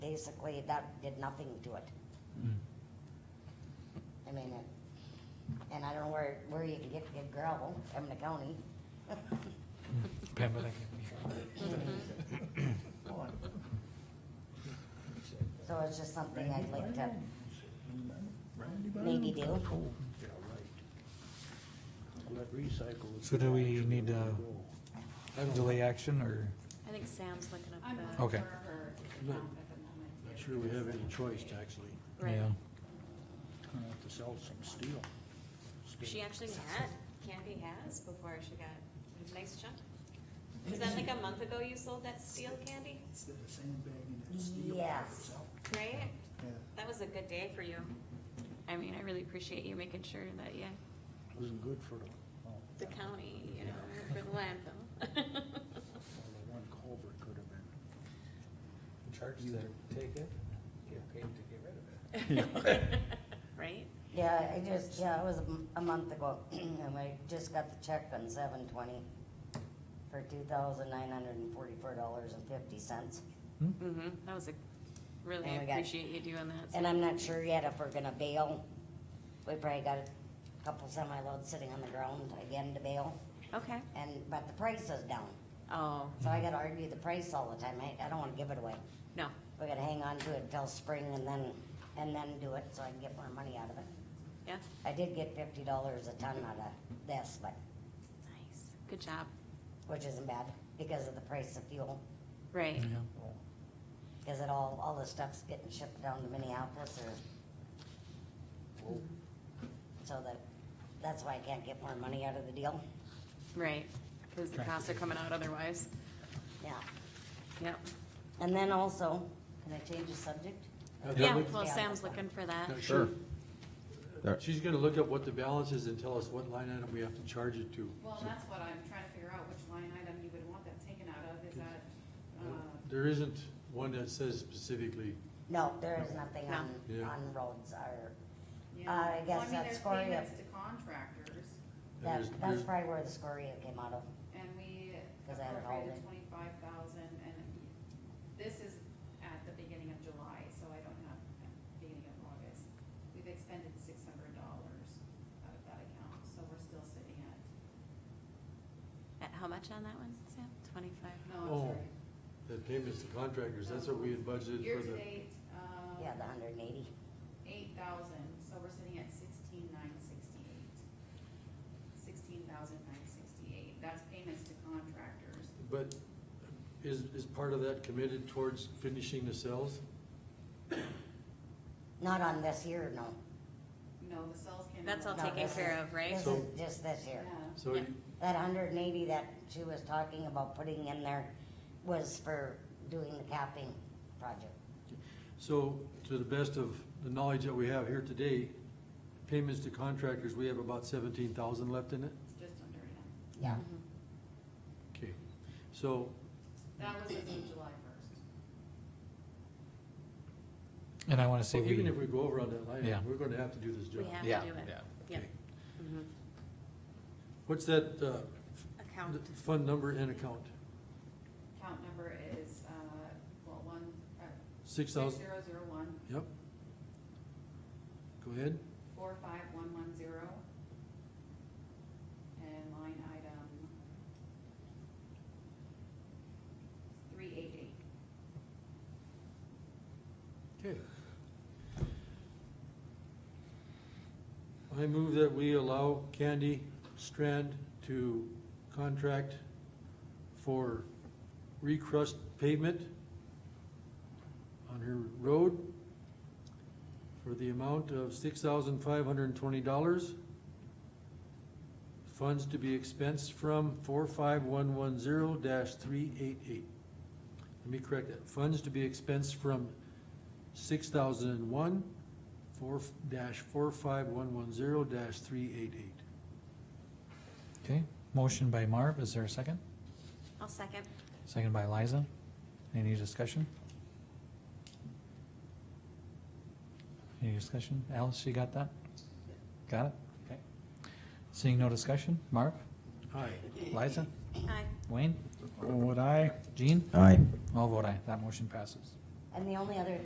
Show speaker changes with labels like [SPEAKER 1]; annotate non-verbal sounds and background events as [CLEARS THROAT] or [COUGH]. [SPEAKER 1] basically that did nothing to it. I mean, it- and I don't know where, where you can get good gravel from the county.
[SPEAKER 2] Pamela.
[SPEAKER 1] So it's just something I'd like to
[SPEAKER 3] Randy
[SPEAKER 1] maybe do.
[SPEAKER 3] Yeah, right. Let recycle.
[SPEAKER 2] So do we need to-
[SPEAKER 3] Go.
[SPEAKER 2] Delay action or,
[SPEAKER 4] I think Sam's looking
[SPEAKER 5] I'm
[SPEAKER 4] up
[SPEAKER 5] looking
[SPEAKER 2] Okay.
[SPEAKER 5] for her
[SPEAKER 3] Not-
[SPEAKER 5] account at the moment.
[SPEAKER 3] Not sure we have any choice, actually.
[SPEAKER 4] the, right.
[SPEAKER 2] yeah,
[SPEAKER 3] Gonna have to sell some steel.
[SPEAKER 4] She actually had candy has before she got a nice chunk. Is that like a month ago you sold that steel candy,
[SPEAKER 6] It's got a sandbag in that steel.
[SPEAKER 1] Yes.
[SPEAKER 4] right?
[SPEAKER 6] Yeah.
[SPEAKER 4] That was a good day for you. I mean, I really appreciate you making sure that, yeah,
[SPEAKER 3] Wasn't good for the, oh,
[SPEAKER 4] the county, you know, for the landfill.
[SPEAKER 3] well, the one culvert could have been.
[SPEAKER 7] Charge to take it, get paid to get rid of it.
[SPEAKER 4] [LAUGHS] Right?
[SPEAKER 1] Yeah, I just, yeah, it was a m- a month ago, [CLEARS THROAT] and I just got the check on seven twenty for two thousand nine hundred and forty-four dollars and fifty cents.
[SPEAKER 4] Mm-hmm, that was a, really
[SPEAKER 1] And we got-
[SPEAKER 4] appreciate you doing that.
[SPEAKER 1] And I'm not sure yet if we're gonna bail. We probably got a couple semi-loads sitting on the ground again to bail,
[SPEAKER 4] Okay,
[SPEAKER 1] and, but the price is down.
[SPEAKER 4] oh,
[SPEAKER 1] So I gotta argue the price all the time, I, I don't wanna give it away.
[SPEAKER 4] no,
[SPEAKER 1] We gotta hang on to it until spring and then, and then do it, so I can get more money out of it.
[SPEAKER 4] yeah,
[SPEAKER 1] I did get fifty dollars a ton out of this, but,
[SPEAKER 4] nice, good job,
[SPEAKER 1] which isn't bad, because of the price of fuel.
[SPEAKER 4] right,
[SPEAKER 1] Cause it all, all the stuff's getting shipped down to Minneapolis or. So that, that's why I can't get more money out of the deal,
[SPEAKER 4] right, cause the costs are coming out otherwise,
[SPEAKER 1] yeah.
[SPEAKER 4] yep.
[SPEAKER 1] And then also, can I change the subject?
[SPEAKER 4] Yeah,
[SPEAKER 1] would-
[SPEAKER 4] well,
[SPEAKER 1] Yeah.
[SPEAKER 4] Sam's looking for that,
[SPEAKER 8] Now, Sure. She's gonna look up what the balance is and tell us what line item we have to charge it to.
[SPEAKER 5] Well, and that's what I'm trying to figure out, which line item you would want that taken out of, is that, uh,
[SPEAKER 8] There isn't one that says specifically,
[SPEAKER 1] No, there is nothing on,
[SPEAKER 8] Yeah.
[SPEAKER 1] on roads or,
[SPEAKER 5] you
[SPEAKER 1] Uh,
[SPEAKER 5] know?
[SPEAKER 1] I
[SPEAKER 5] Well,
[SPEAKER 1] guess
[SPEAKER 5] mean,
[SPEAKER 1] that's
[SPEAKER 5] there's
[SPEAKER 1] for you.
[SPEAKER 5] payments To contractors,
[SPEAKER 1] that, that's
[SPEAKER 8] there's- there's-
[SPEAKER 1] probably where the scoria came out of.
[SPEAKER 5] and we
[SPEAKER 1] 'Cause I had all
[SPEAKER 5] appropriated
[SPEAKER 1] the-
[SPEAKER 5] twenty-five thousand, and this is at the beginning of July, so I don't have, at the beginning of August. We've expended six hundred dollars out of that account, so we're still sitting at,
[SPEAKER 4] Uh, how much on that one, Sam, twenty-five?
[SPEAKER 5] no,
[SPEAKER 8] Oh,
[SPEAKER 5] I'm sorry.
[SPEAKER 8] the payments to contractors, that's what we had budgeted for the,
[SPEAKER 5] Year-to-date, um.
[SPEAKER 1] Yeah, the hundred and eighty.
[SPEAKER 5] eight thousand, so we're sitting at sixteen nine sixty-eight. Sixteen thousand nine sixty-eight, that's payments to contractors.
[SPEAKER 8] but is, is part of that committed towards finishing the cells?
[SPEAKER 1] Not on this year, no.
[SPEAKER 5] No, the cells can.
[SPEAKER 4] That's all
[SPEAKER 1] No,
[SPEAKER 4] taken
[SPEAKER 1] this
[SPEAKER 4] care
[SPEAKER 1] is-
[SPEAKER 4] of, right?
[SPEAKER 1] This
[SPEAKER 8] So-
[SPEAKER 1] is just this year.
[SPEAKER 5] Yeah,
[SPEAKER 8] So
[SPEAKER 4] Yeah.
[SPEAKER 8] you-
[SPEAKER 1] That hundred and eighty that she was talking about putting in there was for doing the capping project.
[SPEAKER 8] So, to the best of the knowledge that we have here today, payments to contractors, we have about seventeen thousand left in it?
[SPEAKER 5] just under it.
[SPEAKER 1] Yeah,
[SPEAKER 8] Okay, so,
[SPEAKER 5] That was as of July first.
[SPEAKER 2] and I wanna
[SPEAKER 8] so
[SPEAKER 2] say
[SPEAKER 8] even
[SPEAKER 2] we,
[SPEAKER 8] if we go over on that line,
[SPEAKER 2] Yeah.
[SPEAKER 8] item, we're gonna have to do this
[SPEAKER 4] We
[SPEAKER 8] job.
[SPEAKER 4] have
[SPEAKER 7] Yeah,
[SPEAKER 4] to do it,
[SPEAKER 7] yeah.
[SPEAKER 4] yeah, Mm-hmm.
[SPEAKER 8] Okay. What's that, uh,
[SPEAKER 4] account,
[SPEAKER 8] th- fund number and account?
[SPEAKER 5] Count number is, uh, well, one, uh,
[SPEAKER 8] Six
[SPEAKER 5] six
[SPEAKER 8] thousand,
[SPEAKER 5] zero zero one,
[SPEAKER 8] yep. Go ahead.
[SPEAKER 5] four five one one zero. And line item. Three eight eight.
[SPEAKER 8] Okay. I move that we allow Candy Strand to contract for recrust pavement on her road for the amount of six thousand five hundred and twenty dollars. Funds to be expensed from four five one one zero dash three eight eight. Let me correct that. Funds to be expensed from six thousand and one, four dash four five one one zero dash three eight eight.
[SPEAKER 2] okay, motion by Marv, is there a second?
[SPEAKER 4] I'll second,
[SPEAKER 2] Second by Liza, any discussion? Any discussion? Alice, you got that? Got it? Okay. Seeing no discussion, Marv,
[SPEAKER 8] Aye.
[SPEAKER 2] Liza,
[SPEAKER 4] aye,
[SPEAKER 2] Wayne,
[SPEAKER 3] Would I?
[SPEAKER 2] Jean,
[SPEAKER 7] Aye.
[SPEAKER 2] all vote aye, that motion passes.
[SPEAKER 8] Mm-hmm.
[SPEAKER 1] and the only other